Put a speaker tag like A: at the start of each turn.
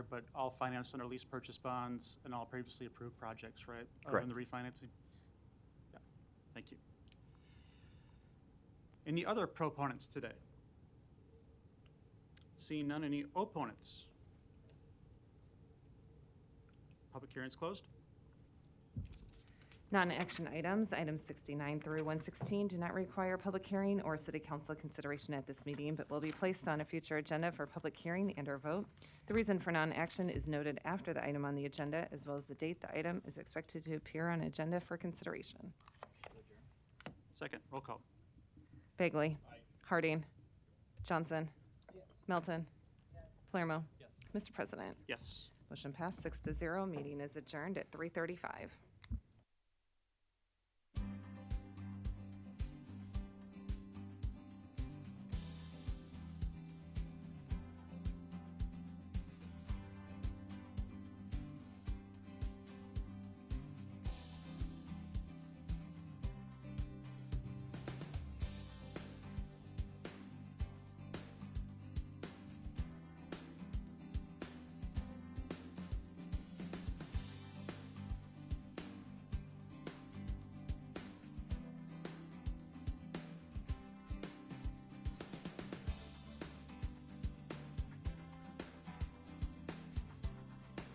A: but all financed under lease purchase bonds and all previously approved projects, right? Other than the refinancing? Yeah, thank you. Any other proponents today? Seeing none, any opponents? Public hearing's closed.
B: Non-action items, items 69 through 116, do not require public hearing or city council consideration at this meeting, but will be placed on a future agenda for public hearing and/or vote. The reason for non-action is noted after the item on the agenda, as well as the date the item is expected to appear on agenda for consideration.
A: Second, roll call.
B: Bagley. Harding. Johnson. Melton. Palermo. Mr. President,
A: Yes.
B: motion passed six to zero. Meeting is adjourned at 3:35.